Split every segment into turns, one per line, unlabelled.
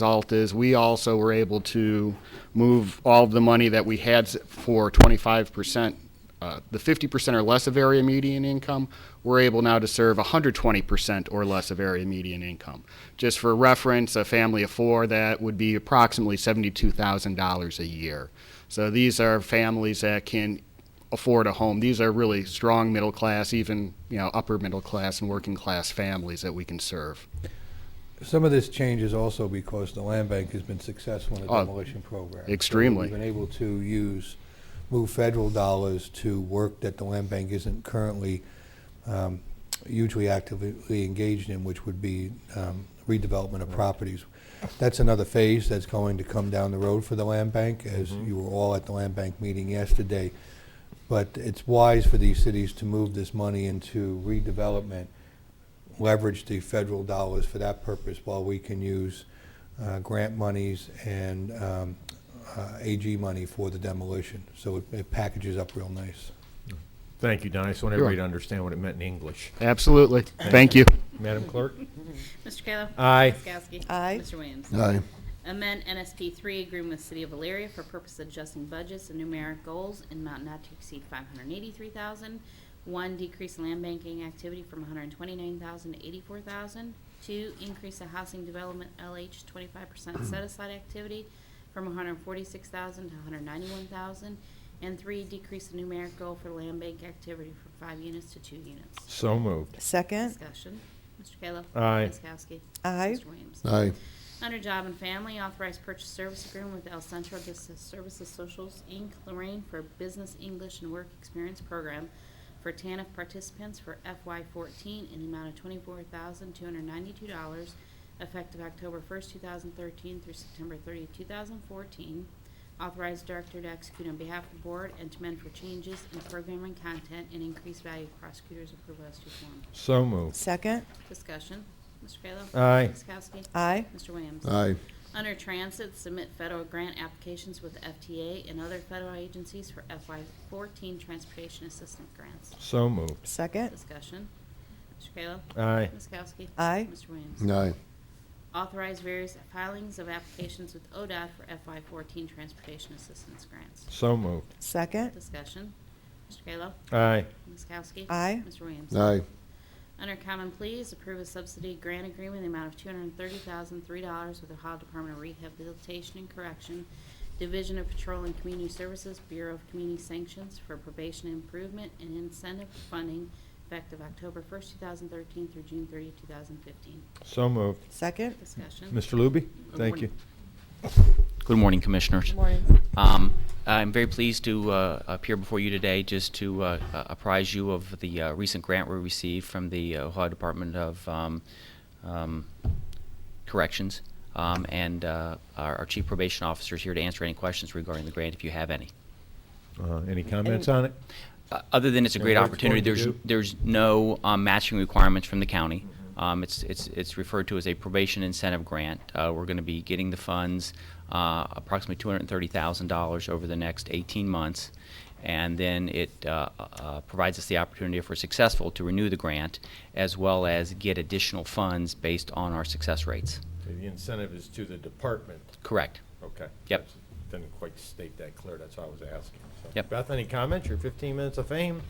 result is we also were able to move all of the money that we had s- for 25%, uh, the 50% or less of area median income, we're able now to serve 120% or less of area median income. Just for reference, a family of four, that would be approximately $72,000 a year. So these are families that can afford a home. These are really strong middle class, even, you know, upper middle class and working class families that we can serve.
Some of this change is also because the land bank has been successful in the
Oh,
demolition program.
extremely.
So We've been able to use, move federal dollars to work that the land bank isn't currently um, hugely actively engaged in, which would be um, redevelopment of properties. That's another phase that's going to come down the road for the land bank, as you were all at the land bank meeting yesterday. But it's wise for these cities to move this money into redevelopment leverage the federal dollars for that purpose while we can use uh, grant monies and um, uh, AG money for the demolition. So it- it packages up real nice.
Thank you, Don. I just want everybody to understand what it meant in English.
Absolutely. Thank you.
Madam Clerk?
Mr. Kayla?
Aye.
Ms. Kowski?
Aye.
Mr. Williams?
Aye.
Amend NSP three agreement with City of Valeria for purpose of adjusting budgets and numeric goals in amount not to exceed five hundred eighty-three thousand. One, decrease land banking activity from one hundred twenty-nine thousand to eighty-four thousand. Two, increase the housing development LH twenty-five percent set-aside activity from one hundred forty-six thousand to one hundred ninety-one thousand. And three, decrease the numeric goal for land bank activity from five units to two units.
So moved.
Second,
Discussion. Mr. Kayla?
Aye.
Ms. Kowski?
aye.
Mr. Williams?
Aye,
Under Job and Family, authorized purchase service agreement with El Centro de S- Services Socials, Inc., Lorraine, for Business English and Work Experience Program for TANF participants for FY14 in the amount of $24,292, effective October 1st, 2013 through September 30th, 2014. Authorized director to execute on behalf of the board and to amend for changes in programming content and increased value of prosecutors' approval as to form.
So moved.
Second,
Discussion. Mr. Kayla?
Aye.
Ms. Kowski?
aye.
Mr. Williams?
aye,
Under Transit, submit federal grant applications with FTA and other federal agencies for FY14 transportation assistance grants.
So moved.
Second,
Discussion. Mr. Kayla?
Aye.
Ms. Kowski?
Aye.
Mr. Williams?
aye,
Authorize various filings of applications with ODOT for FY14 transportation assistance grants.
So moved.
second,
Discussion. Mr. Kayla?
Aye.
Ms. Kowski?
Aye.
Mr. Williams?
aye,
Under Common Pleas, approve a subsidy grant agreement in the amount of two hundred and thirty thousand, three dollars with Ohio Department of Rehabilitation and Correction, Division of Patrol and Community Services, Bureau of Community Sanctions for probation improvement and incentive funding effective October first, two thousand thirteen through June 30, thousand fifteen.
So moved.
second.
Discussion.
Mr. Luby? Thank you.
Good morning, Commissioners.
Good morning.
Um, I'm very pleased to uh, appear before you today just to uh, uh, apprise you of the uh, recent grant we received from the uh, Ohio Department of um, um, Corrections. Um, and uh, our, our Chief Probation Officer is here to answer any questions regarding the grant if you have any.
Uh, Any comments on it?
Uh, Other than it's a
And
great
what it's
opportunity,
going to
there's,
do?
there's no um, matching requirements from the county. Um, It's, it's, it's referred to as a probation incentive grant. Uh, We're going to be getting the funds, uh, approximately $230,000 over the next 18 months. And then it uh, uh, provides us the opportunity, if we're successful, to renew the grant, as well as get additional funds based on our success rates.
The incentive is to the department.
Correct.
Okay.
Yep.
Didn't quite state that clear. That's why I was asking. So,
Yep.
Beth, any comments? Your 15 minutes of fame?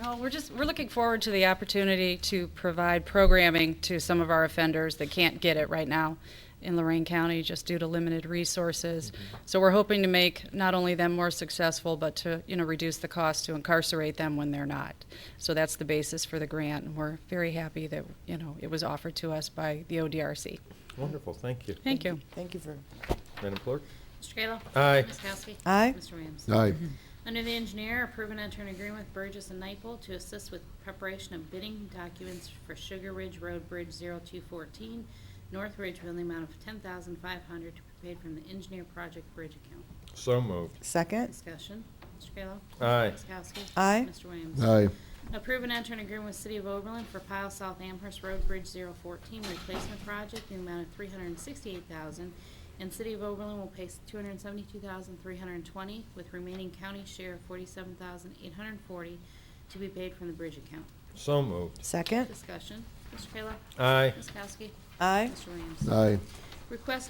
No, we're just, we're looking forward to the opportunity to provide programming to some of our offenders that can't get it right now in Lorraine County just due to limited resources. So we're hoping to make not only them more successful, but to, you know, reduce the cost to incarcerate them when they're not. So that's the basis for the grant, and we're very happy that, you know, it was offered to us by the ODRC.
Wonderful. Thank you.
Thank you.
Thank you for,
Madam Clerk?
Mr. Kayla?
Aye.
Ms. Kowski?
Aye.
Mr. Williams?
aye,
Under the engineer, approve and enter an agreement with Burgess and Nyepel to assist with preparation of bidding documents for Sugar Ridge Road Bridge 0214, North Ridgeville, in the amount of 10500 to be paid from the engineer project bridge account.
So moved.
second,
Discussion. Mr. Kayla?
Aye.
Ms. Kowski?
Aye.
Mr. Williams?
aye,
Approve and enter an agreement with City of Oberlin for Pile South Amherst Road Bridge 014 replacement project in the amount of 368000 and City of Oberlin will pay 272320 with remaining county share of 47840 to be paid from the bridge account.
So moved.
second,
Discussion. Mr. Kayla?
Aye.
Ms. Kowski?
aye.
Mr. Williams?
aye,
Request